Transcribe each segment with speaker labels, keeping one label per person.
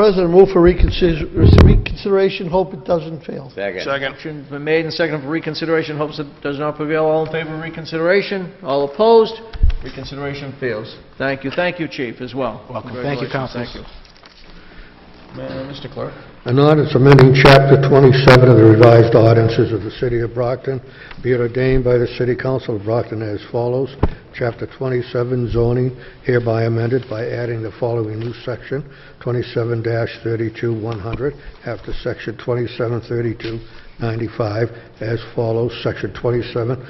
Speaker 1: President, move for reconsider- reconsideration, hope it doesn't fail.
Speaker 2: Second.
Speaker 3: Second. Motion's been made and seconded for reconsideration, hopes it does not prevail. All in favor of reconsideration? All opposed? Reconsideration fails. Thank you, thank you, Chief, as well.
Speaker 4: Welcome. Thank you,
Speaker 3: Congratulations.
Speaker 4: Councilors.
Speaker 3: Thank you. Uh, Mr. Clerk?
Speaker 5: An ordinance amending Chapter 27 of the revised ordinances of the City of Brockton, be it ordained by the City Council of Brockton as follows. Chapter 27 zoning hereby amended by adding the following new section, 27-32-100, after Section 2732-95, as follows. Section 2732-100,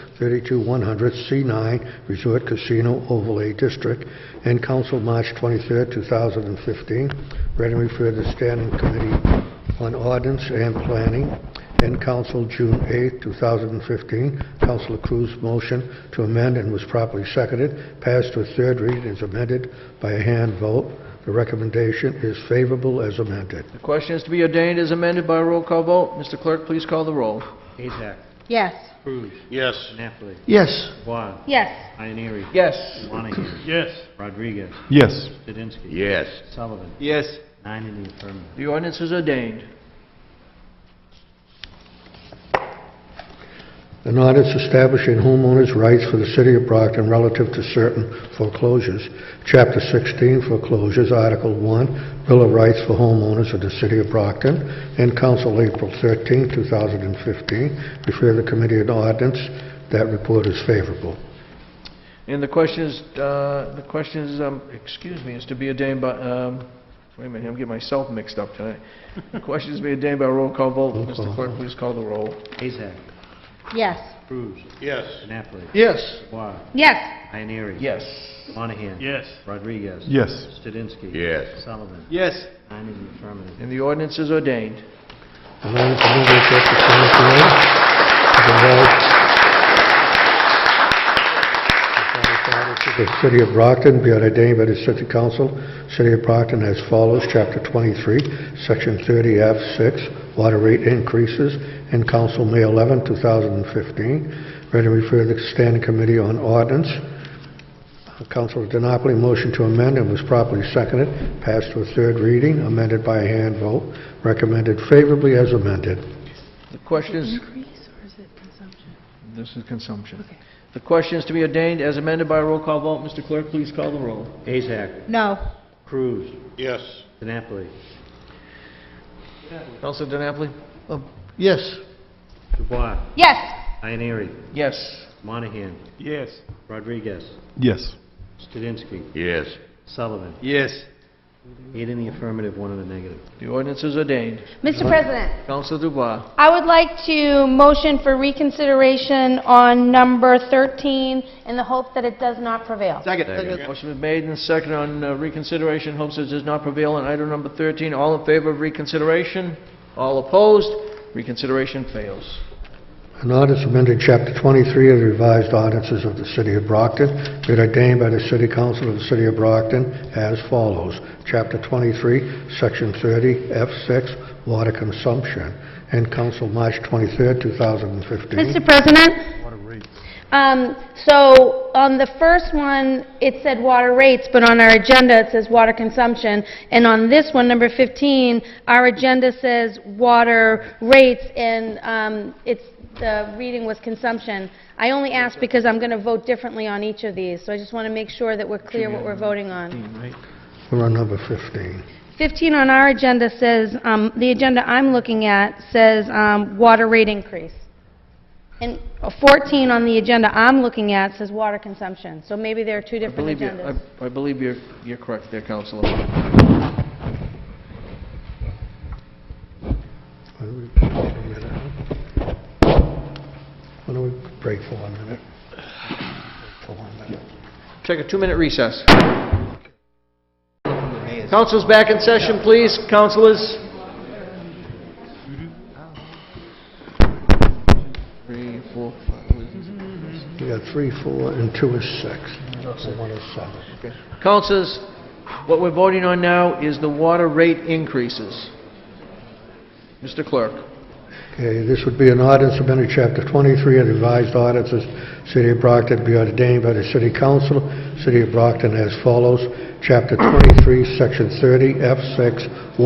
Speaker 5: C9, Resort Casino Overlay District, and Council March 23, 2015, read and referred to Standing Committee on Ordinance and Planning, and Council June 8, 2015. Councilor Cruz motion to amend and was properly seconded, passed to a third reading and is amended by a hand vote. The recommendation is favorable as amended.
Speaker 3: The question is to be ordained as amended by a roll call vote. Mr. Clerk, please call the roll.
Speaker 4: Azak,
Speaker 6: Yes.
Speaker 4: Cruz,
Speaker 2: Yes.
Speaker 4: Napoli,
Speaker 1: Yes.
Speaker 4: Vaughn,
Speaker 6: Yes.
Speaker 4: Ioneary,
Speaker 3: Yes.
Speaker 4: Monahan,
Speaker 2: Yes.
Speaker 4: Rodriguez,
Speaker 7: Yes.
Speaker 4: Zadinsky,
Speaker 2: Yes.
Speaker 4: Sullivan,
Speaker 2: Yes.
Speaker 4: nine in the affirmative.
Speaker 3: The ordinance is ordained.
Speaker 5: An ordinance establishing homeowners' rights for the city of Brockton relative to certain foreclosures. Chapter 16 foreclosures, Article 1, Bill of Rights for Homeowners of the City of Brockton, and Council April 13, 2015. Refer the committee on ordinance. That report is favorable.
Speaker 3: And the question is, uh, the question is, um, excuse me, is to be ordained by, um, wait a minute, I'm getting myself mixed up tonight. The question is to be ordained by a roll call vote.
Speaker 5: Roll
Speaker 3: Mr.
Speaker 5: call.
Speaker 3: Clerk, please call the roll.
Speaker 4: Azak,
Speaker 6: Yes.
Speaker 4: Cruz,
Speaker 2: Yes.
Speaker 4: Napoli,
Speaker 1: Yes.
Speaker 4: Vaughn,
Speaker 6: Yes.
Speaker 4: Ioneary.
Speaker 3: Yes.
Speaker 4: Monahan.
Speaker 2: Yes.
Speaker 4: Rodriguez.
Speaker 7: Yes.
Speaker 4: Zadinsky.
Speaker 2: Yes.
Speaker 4: Sullivan,
Speaker 2: Yes.
Speaker 4: nine in the affirmative.
Speaker 3: And the ordinance is ordained.
Speaker 5: An ordinance amending Chapter 17 of the law- The City of Brockton, be it ordained by the City Council, City of Brockton as follows, Chapter 23, Section 30F6, Water Rate Increases, in Council, May 11, 2015, read and refer to the Standing Committee on Ordinance. Councilor DiNapoli, motion to amend, and was properly seconded, passed to a third reading, amended by a hand vote, recommended favorably as amended.
Speaker 3: The question is,
Speaker 6: Increase or is it consumption?
Speaker 3: this is consumption. The question is to be ordained as amended by a roll call vote. Mr. Clerk, please call the roll.
Speaker 4: Azak,
Speaker 6: No.
Speaker 4: Cruz,
Speaker 2: Yes.
Speaker 4: Napoli,
Speaker 3: Counselor DiNapoli?
Speaker 1: Uh, Yes.
Speaker 4: Dubois,
Speaker 6: Yes.
Speaker 4: Ioneary,
Speaker 3: Yes.
Speaker 4: Monahan,
Speaker 2: Yes.
Speaker 4: Rodriguez,
Speaker 7: Yes.
Speaker 4: Zadinsky,
Speaker 2: Yes.
Speaker 4: Sullivan,
Speaker 2: Yes.
Speaker 4: eight in the affirmative, one in the negative.
Speaker 3: The ordinance is ordained.
Speaker 6: Mr. President,
Speaker 3: Counselor Dubois?
Speaker 6: I would like to motion for reconsideration on number 13 in the hope that it does not prevail.
Speaker 3: Second. Motion been made and seconded on uh, reconsideration. Hopes it does not prevail on item number 13. All in favor of reconsideration? All opposed? Reconsideration fails.
Speaker 5: An ordinance amending Chapter 23 of the revised ordinances of the City of Brockton, be it ordained by the City Council of the City of Brockton as follows. Chapter 23, Section 30, F6, Water Consumption, and Council, March 23, 2015.
Speaker 6: Mr. President? Um, So on the first one, it said water rates, but on our agenda, it says water consumption. And on this one, number 15, our agenda says water rates, and um, it's, the reading was consumption. I only asked because I'm going to vote differently on each of these, so I just want to make sure that we're clear what we're voting on.
Speaker 5: We're on number 15.
Speaker 6: 15 on our agenda says, um, the agenda I'm looking at says um, water rate increase. And 14 on the agenda I'm looking at says water consumption. So maybe there are two
Speaker 3: I
Speaker 6: different
Speaker 3: believe you-
Speaker 6: agendas.
Speaker 3: I- I believe you're you're correct there, Counselor.
Speaker 5: Why don't we break for a minute, huh? Why don't we break for one minute? For one minute.
Speaker 3: Take a two-minute recess. Council's back in session, please. Councilors? Three, four, five.
Speaker 5: We got three, four, and two is six. And one is seven.
Speaker 3: Councilors, what we're voting on now is the water rate increases. Mr. Clerk?
Speaker 5: Okay, this would be an ordinance amending Chapter 23 of the revised ordinances, City of Brockton, be ordained by the City Council, City of Brockton as follows, Chapter 23, Section 30, F6,